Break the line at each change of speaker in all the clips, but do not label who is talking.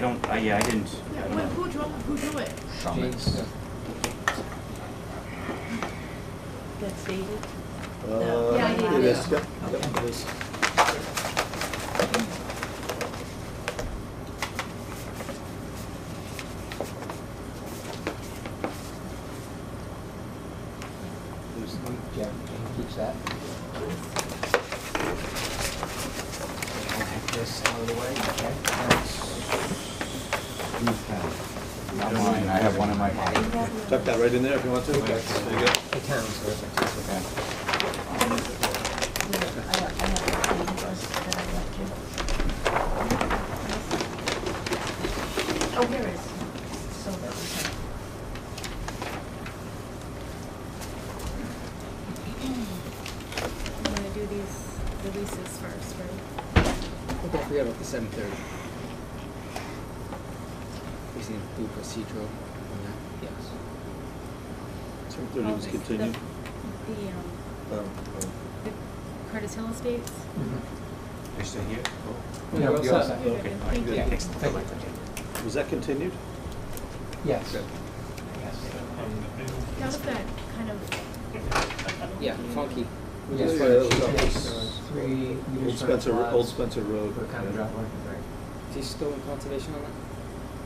don't, I, yeah, I didn't, I don't
Who,
know.
who drew, who drew it?
James,
That's David?
Uh,
Yeah, I need
It
it.
is, yep, yep, it is.
there's one, Jack, can you keep that? I'll take this out of the way, okay? That's-
Not mine, I have one in my pocket.
Tuck that right in there if you want to. There you go.
The town's reference.
Okay.
Oh, here it is. So that we
I'm gonna do these releases first, right?
Well, Don't forget about the seven thirty. We seem to do procedural on that, yes.
Seven thirty was
Oh,
continued.
the- The, um,
Um,
the Curtis Hill Estates.
Mm-hmm.
They're still here?
Yeah,
we're all set.
Okay, all right,
Thank
good.
you.
Thanks.
Thank you.
um, Was that continued?
Yes.
Good.
That was that kind of,
Yeah, funky. We
Yes,
just
Yeah,
for
wanted
that
the
was
to
up.
cheap
keep
dates,
this, uh,
uh, three
Old
meters for
Spencer, Ro- Old
plots
Spencer Road.
For common
yeah.
drop work, right.
Is he still in conservation on that?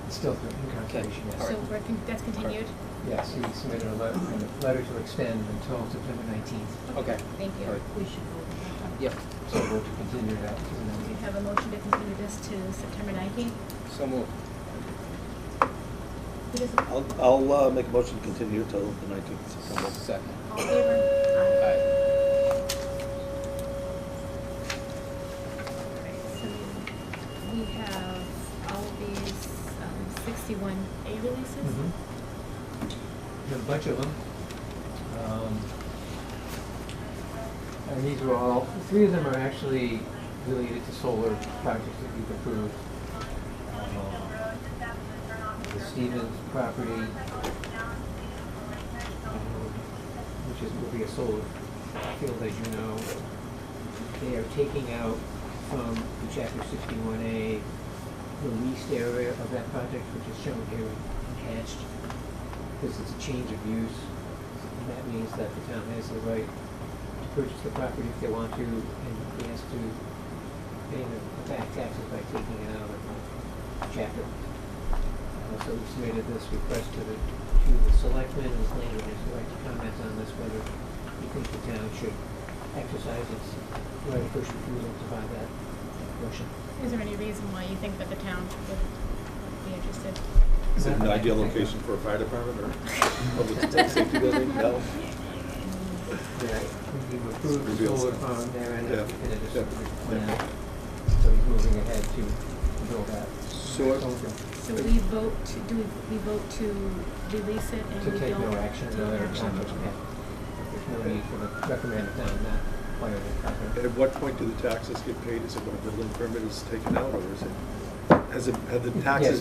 It's still through conservation,
All
so
yes.
right.
we're, con- that's continued?
Yes, he submitted a letter, a letter to extend until September nineteenth,
Okay.
Thank
All
you.
right.
should vote.
Yep,
so we're to continue that to the
Do you
19th.
have a motion to continue this to September nineteenth?
so moved.
Who doesn't, all
I'll, I'll uh, make a motion to continue till the nineteenth of September.
Second.
in favor?
Aye.
Alright, so we have all of these, um, sixty-one A releases.
Mm-hmm.
Mhm. There are a bunch of them. Um, And these are all, three of them are actually related to solar projects that we've approved. Um, The Stevens property, um, which is, will be a solar field, as you know. They are taking out from the chapter sixty-one A, the leased area of that project, which is shown here attached because it's a change of use. And that means that the town has the right to purchase the property if they want to, and he has to pay the the back taxes by taking it out of the chapter. Uh, So we submitted this request to the, to the selectmen, and the landlord has the right to comment on this, whether you think the town should exercise its right of first refusal to buy that portion.
Is there any reason why you think that the town would be interested?
Is it an ideal location for a fire department or public safety building? No?
Right, we've approved the
Reveal
solar
stuff.
farm there and
Yeah.
everything, and it's
Yeah.
a plan. So he's moving ahead to build that.
So I-
Okay.
So we vote to, do we, we vote to release it and we
To
don't?
take no action,
take
no other
action.
action, okay. There's no need for the recommended down that part of the property.
At what point do the taxes get paid? Is it when a building permit is taken out or is it, has it, have the taxes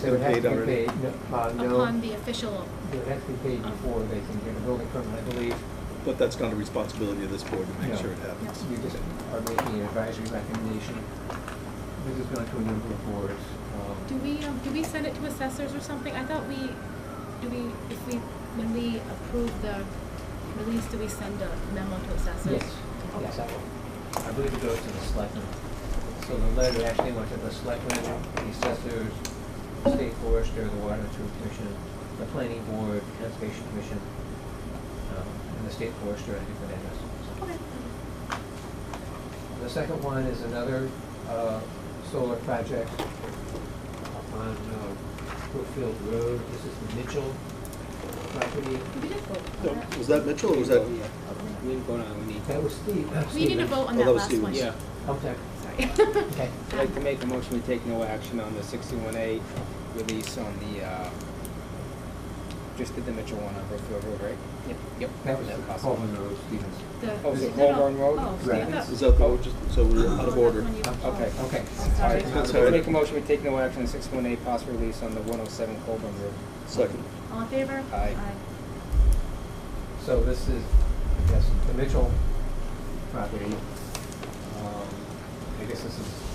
Yes, they
been
would have
paid
to be
already?
paid, no, uh, no,
Upon the official,
they would have to be paid before they can get a building permit, I believe.
But that's not a responsibility of this board to make
No.
sure it happens.
You just are making an advisory recommendation. This has gone to a number of boards. um,
do we, um, do we send it to assessors or something? I thought we, do we, if we, when we approve the release, do we send a memo to assessors?
Yes,
Okay.
yes, I will. I believe it goes to the selectmen. So the letter actually went to the selectmen, the assessors, the state forester, the water and sewer commission, the planning board, conservation commission, um, and the state forester, I think, the address. So-
Okay.
The second one is another uh, solar project up on uh, Brookfield Road. This is the Mitchell property.
We did vote on
No,
that.
Was that Mitchell or was that?
Yeah. We didn't go down, we need.
That was Steve. uh,
We didn't
Stevens.
vote on
Oh,
that
that was
last one.
Stevens.
Yeah,
Oh, sorry.
Sorry.
Okay.
I'd like to make a motion to take no action on the sixty-one A release on the, uh, just did the Mitchell one on Brookfield Road, right? Yep. Yep.
That was
Is possible?
Colvin Road, Stevens.
The-
Oh, is it
no, no.
Colburn Road?
Oh,
Right.
I thought-
Is that the, one just- so we're out
Oh, that's
of order?
when you-
Okay.
Okay.
Sorry.
That's all
I'll
right.
make a motion, we take no action on sixty-one A, possible release on the one oh seven Colburn Road.
Second.
All in favor?
Aye.
So this is, yes, the Mitchell property. Um, I guess this is